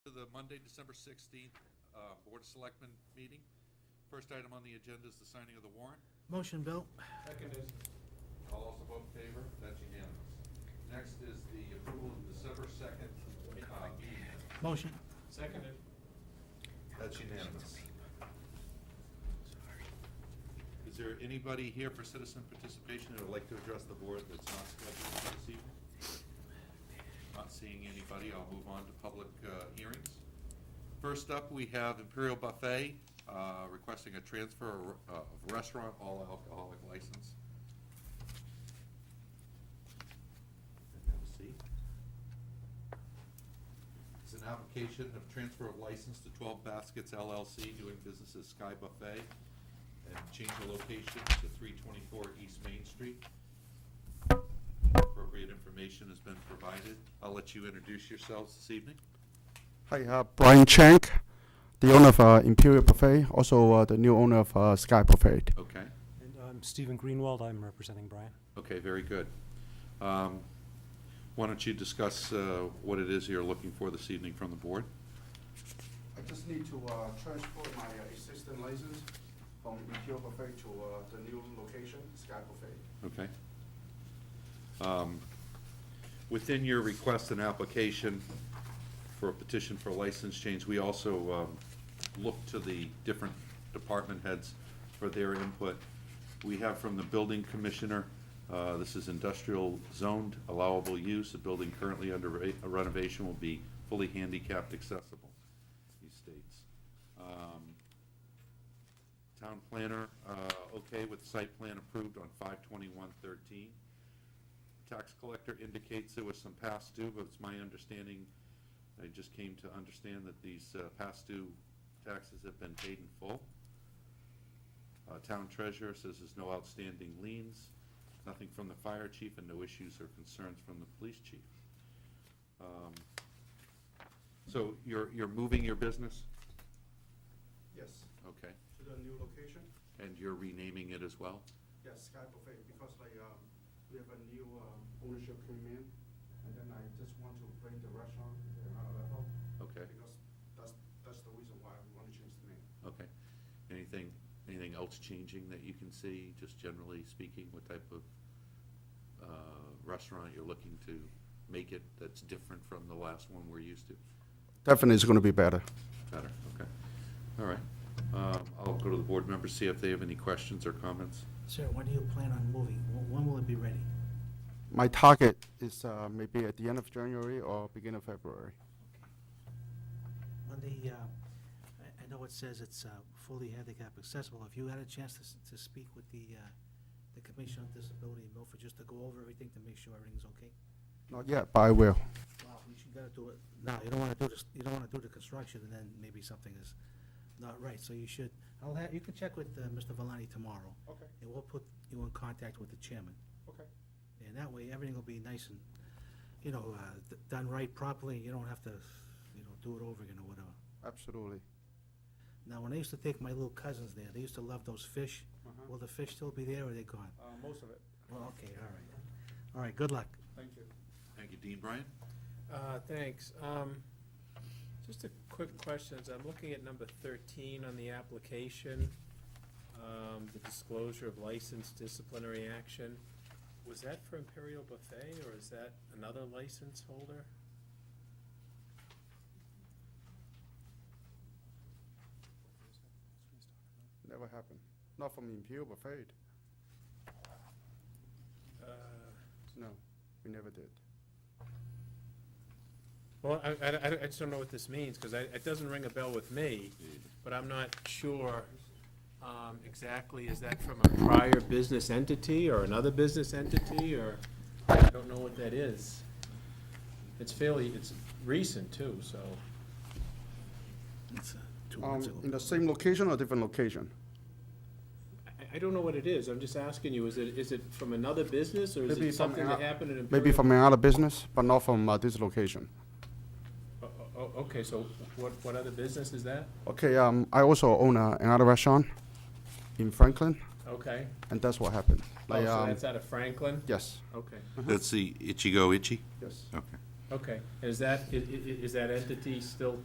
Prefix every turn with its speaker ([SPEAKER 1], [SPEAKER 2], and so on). [SPEAKER 1] the Monday, December 16th uh, Board of Selectmen meeting. First item on the agenda is the signing of the warrant.
[SPEAKER 2] Motion, Bill.
[SPEAKER 1] Seconded. All also vote in favor? That's unanimous. Next is the approval of December 2nd uh, meeting. minutes.
[SPEAKER 2] Motion.
[SPEAKER 3] Seconded.
[SPEAKER 1] That's unanimous. Is there anybody here for citizen participation that would like to address the board that's not scheduled for this evening? Not seeing anybody, I'll move on to public uh, hearings. First up, we have Imperial Buffet uh, requesting a transfer of- of restaurant all alcoholic license. Have a seat. It's an application of transfer of license to 12 Baskets LLC, doing business as Sky Buffet, and change the location to 324 East Main Street. Appropriate information has been provided. I'll let you introduce yourselves this evening.
[SPEAKER 4] Hi, uh, Brian Chank, the owner of uh, Imperial Buffet, also uh, the new owner of uh, Sky Buffet.
[SPEAKER 1] Okay,
[SPEAKER 5] And I'm Stephen Greenwald, I'm representing Brian.
[SPEAKER 1] okay, very good. Um, Why don't you discuss uh, what it is you're looking for this evening from the board?
[SPEAKER 4] I just need to uh, transfer my uh, existing license from Imperial Buffet to uh, the new location, Sky Buffet.
[SPEAKER 1] Okay. Um, Within your request and application for a petition for a license change, we also um, looked to the different department heads for their input. We have from the building commissioner, uh, this is industrial zoned allowable use. The building currently under re- renovation will be fully handicapped accessible, he states. Um, Town planner, uh, okay with site plan approved on five twenty-one thirteen. Tax collector indicates there was some past due, but it's my understanding, I just came to understand that these, uh, past due taxes have been paid in full. Uh, town treasurer says there's no outstanding liens, nothing from the fire chief, and no issues or concerns from the police chief. Um, So you're, you're moving your business?
[SPEAKER 4] Yes,
[SPEAKER 1] Okay.
[SPEAKER 4] to the new location,
[SPEAKER 1] And you're renaming it as well?
[SPEAKER 4] yes, Sky Buffet, because like, um, we have a new uh, ownership came in, and then I just want to bring the restaurant to another level.
[SPEAKER 1] Okay.
[SPEAKER 4] Because that's, that's the reason why we want to change the name.
[SPEAKER 1] Okay. Anything, anything else changing that you can see, just generally speaking, what type of uh, restaurant you're looking to make it that's different from the last one we're used to?
[SPEAKER 4] Definitely it's going to be better.
[SPEAKER 1] Better, okay. All right. Um, I'll go to the board members, see if they have any questions or comments.
[SPEAKER 2] Sir, when do you plan on moving? Wh- When will it be ready?
[SPEAKER 4] My target is uh, maybe at the end of January or beginning of February.
[SPEAKER 2] On the, uh, I I know it says it's uh, fully handicap accessible. Have you had a chance to s- to speak with the uh, the Commission on Disability in Milford, just to go over everything to make sure everything's okay?
[SPEAKER 4] Not yet, but I will.
[SPEAKER 2] Well, you should gotta do it now. You don't wanna do this, you don't wanna do the construction and then maybe something is not right, so you should, I'll have, you can check with, uh, Mr. Valani tomorrow.
[SPEAKER 4] Okay.
[SPEAKER 2] And we'll put you in contact with the chairman.
[SPEAKER 4] Okay.
[SPEAKER 2] And that way, everything will be nice and, you know, uh, d- done right properly, and you don't have to, you know, do it over again or whatever.
[SPEAKER 4] Absolutely.
[SPEAKER 2] Now, when I used to take my little cousins there, they used to love those fish.
[SPEAKER 4] Uh-huh.
[SPEAKER 2] Will the fish still be there or they gone?
[SPEAKER 4] Uh, most of it.
[SPEAKER 2] Well, okay, all right. All right, good luck.
[SPEAKER 4] Thank you.
[SPEAKER 1] Thank you, Dean Bryant.
[SPEAKER 3] Uh, Thanks. Um, Just a quick question, as I'm looking at number 13 on the application, um, the disclosure of license disciplinary action. Was that for Imperial Buffet, or is that another license holder?
[SPEAKER 4] Never happened. Not from Imperial Buffet.
[SPEAKER 3] Uh,
[SPEAKER 4] No, we never did.
[SPEAKER 3] Well, I, I, I I just don't know what this means, because it doesn't ring a bell with me, but I'm not sure um, exactly, is that from a prior business entity or another business entity, or I don't know what that is. It's fairly, it's recent too, so,
[SPEAKER 2] It's, uh, Two
[SPEAKER 4] Um,
[SPEAKER 2] months ago.
[SPEAKER 4] in the same location or different location?
[SPEAKER 3] I, I don't know what it is, I'm just asking you, is it, is it from another business, or is
[SPEAKER 4] Maybe
[SPEAKER 3] it
[SPEAKER 4] from
[SPEAKER 3] something that
[SPEAKER 4] an-
[SPEAKER 3] happened in Imperial?
[SPEAKER 4] Maybe from another business, but not from uh, this location.
[SPEAKER 3] Oh, oh, oh, okay, so what, what other business is that?
[SPEAKER 4] Okay, um, I also own uh, another restaurant in Franklin,
[SPEAKER 3] Okay,
[SPEAKER 4] and that's what happened.
[SPEAKER 3] oh,
[SPEAKER 4] Like,
[SPEAKER 3] so
[SPEAKER 4] um,
[SPEAKER 3] that's out of Franklin?
[SPEAKER 4] yes,
[SPEAKER 3] Okay.
[SPEAKER 1] That's the Ichigo Ichi?
[SPEAKER 4] yes.
[SPEAKER 1] Okay.
[SPEAKER 3] Okay, and is that, i- i- i- is that entity still